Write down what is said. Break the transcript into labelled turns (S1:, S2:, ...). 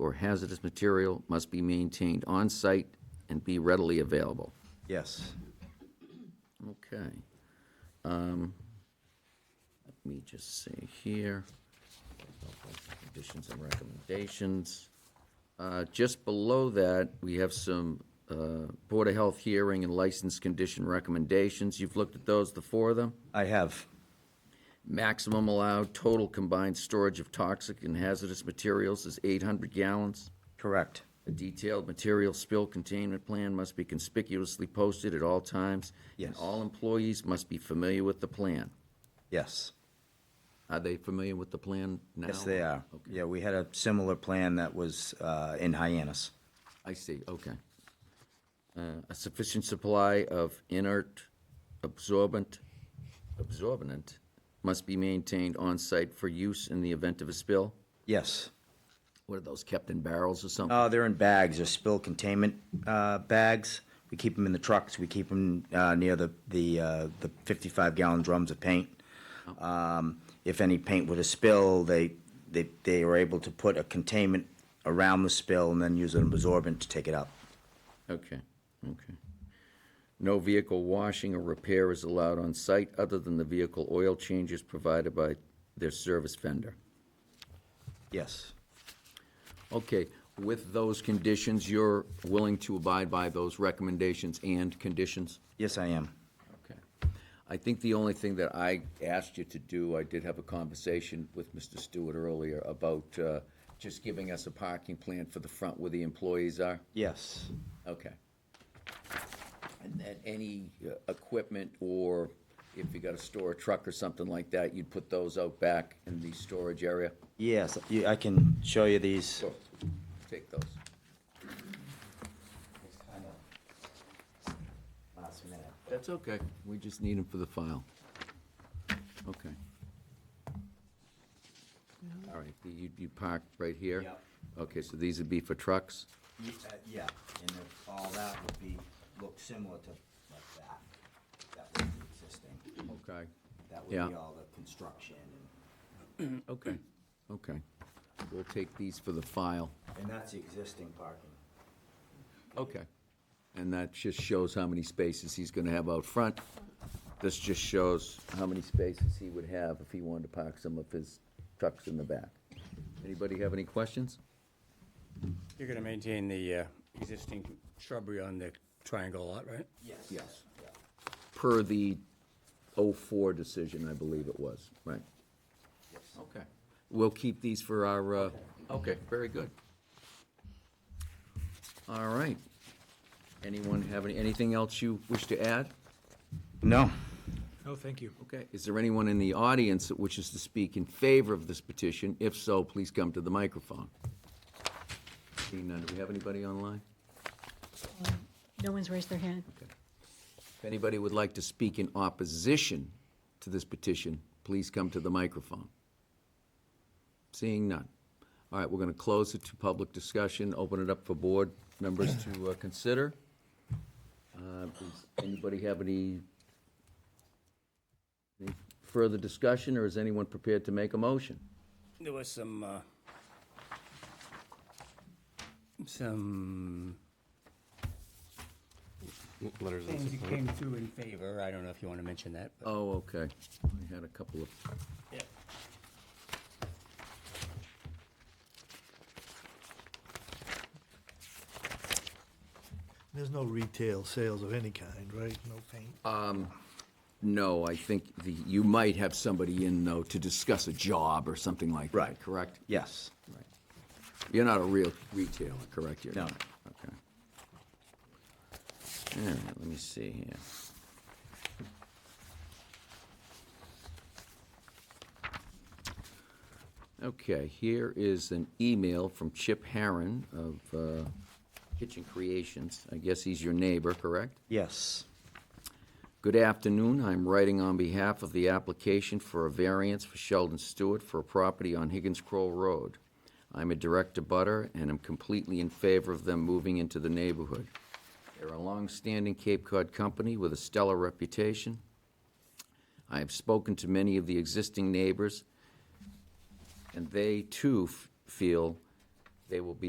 S1: or hazardous material must be maintained on-site and be readily available.
S2: Yes.
S1: Okay. Um, Let me just see here. Conditions and recommendations. Uh, Just below that, we have some uh, Board of Health hearing and license condition recommendations. You've looked at those, the four of them?
S2: I have.
S1: Maximum allowed total combined storage of toxic and hazardous materials is 800 gallons.
S2: Correct.
S1: A detailed material spill containment plan must be conspicuously posted at all times. And
S2: Yes.
S1: all employees must be familiar with the plan.
S2: Yes.
S1: Are they familiar with the plan now?
S2: Yes, they are. Yeah, we had a similar plan that was uh, in Hyannis.
S1: I see, okay. Uh, A sufficient supply of inert absorbent, absorbent must be maintained on-site for use in the event of a spill?
S2: Yes.
S1: What are those, kept in barrels or something?
S2: Uh, they're in bags, they're spill containment uh, bags. We keep them in the trucks, we keep them uh, near the, the, uh, the 55 gallon drums of paint. Um, If any paint were to spill, they, they, they are able to put a containment around the spill and then use an absorbent to take it up.
S1: Okay, okay. No vehicle washing or repair is allowed on site other than the vehicle oil changes provided by their service vendor.
S2: Yes,
S1: Okay, with those conditions, you're willing to abide by those recommendations and conditions?
S2: yes, I am.
S1: Okay. I think the only thing that I asked you to do, I did have a conversation with Mr. Stewart earlier about uh, just giving us a parking plan for the front where the employees are.
S2: Yes,
S1: Okay. And then any uh, equipment or if you got to store a truck or something like that, you'd put those out back in the storage area?
S2: yes, you- I can show you these.
S1: Sure. Take those. That's okay. We just need them for the file. Okay. All right, you, you park right here?
S2: Yep.
S1: Okay, so these would be for trucks?
S2: Ye- uh, Yeah, and if all that would be, look similar to like that. That would be existing.
S1: Okay.
S2: That would
S1: Yeah.
S2: be all the construction. and-
S1: Okay, okay. We'll take these for the file.
S2: And that's the existing parking.
S1: Okay. And that just shows how many spaces he's gonna have out front. This just shows how many spaces he would have if he wanted to park some of his trucks in the back. Anybody have any questions?
S3: You're going to maintain the uh, existing shrubbery on the triangle lot, right?
S2: Yes.
S1: Yes.
S2: yeah.
S1: Per the 04 decision, I believe it was, right? Okay. We'll keep these for our, uh, okay, very good. All right. Anyone have any- anything else you wish to add?
S2: No.
S4: No, thank you.
S1: Okay, is there anyone in the audience that wishes to speak in favor of this petition? If so, please come to the microphone. Seeing none, do we have anybody online?
S5: No one's raised their hand.
S1: If anybody would like to speak in opposition to this petition, please come to the microphone. Seeing none. All right, we're going to close it to public discussion, open it up for board members to uh, consider. Uh, Does anybody have any any further discussion, or is anyone prepared to make a motion?
S3: There was some, uh, some
S4: Letters and
S3: things that came through in favor. I don't know if you want to mention that, but
S1: Oh, okay. I had a couple of,
S6: There's no retail sales of any kind, right? No paint?
S1: no, I think the, you might have somebody in, though, to discuss a job or something like that,
S2: Right.
S1: correct?
S2: Yes.
S1: Right. You're not a real retailer, correct? You're
S2: No.
S1: not. Okay. All right, let me see here. Okay, here is an email from Chip Harron of uh, Kitchen Creations. I guess he's your neighbor, correct?
S2: Yes.
S1: Good afternoon. I'm writing on behalf of the application for a variance for Sheldon Stewart for a property on Higgins Crow Road. I'm a direct abutter and am completely in favor of them moving into the neighborhood. They're a long-standing Cape Cod company with a stellar reputation. I have spoken to many of the existing neighbors, and they too f- feel they will be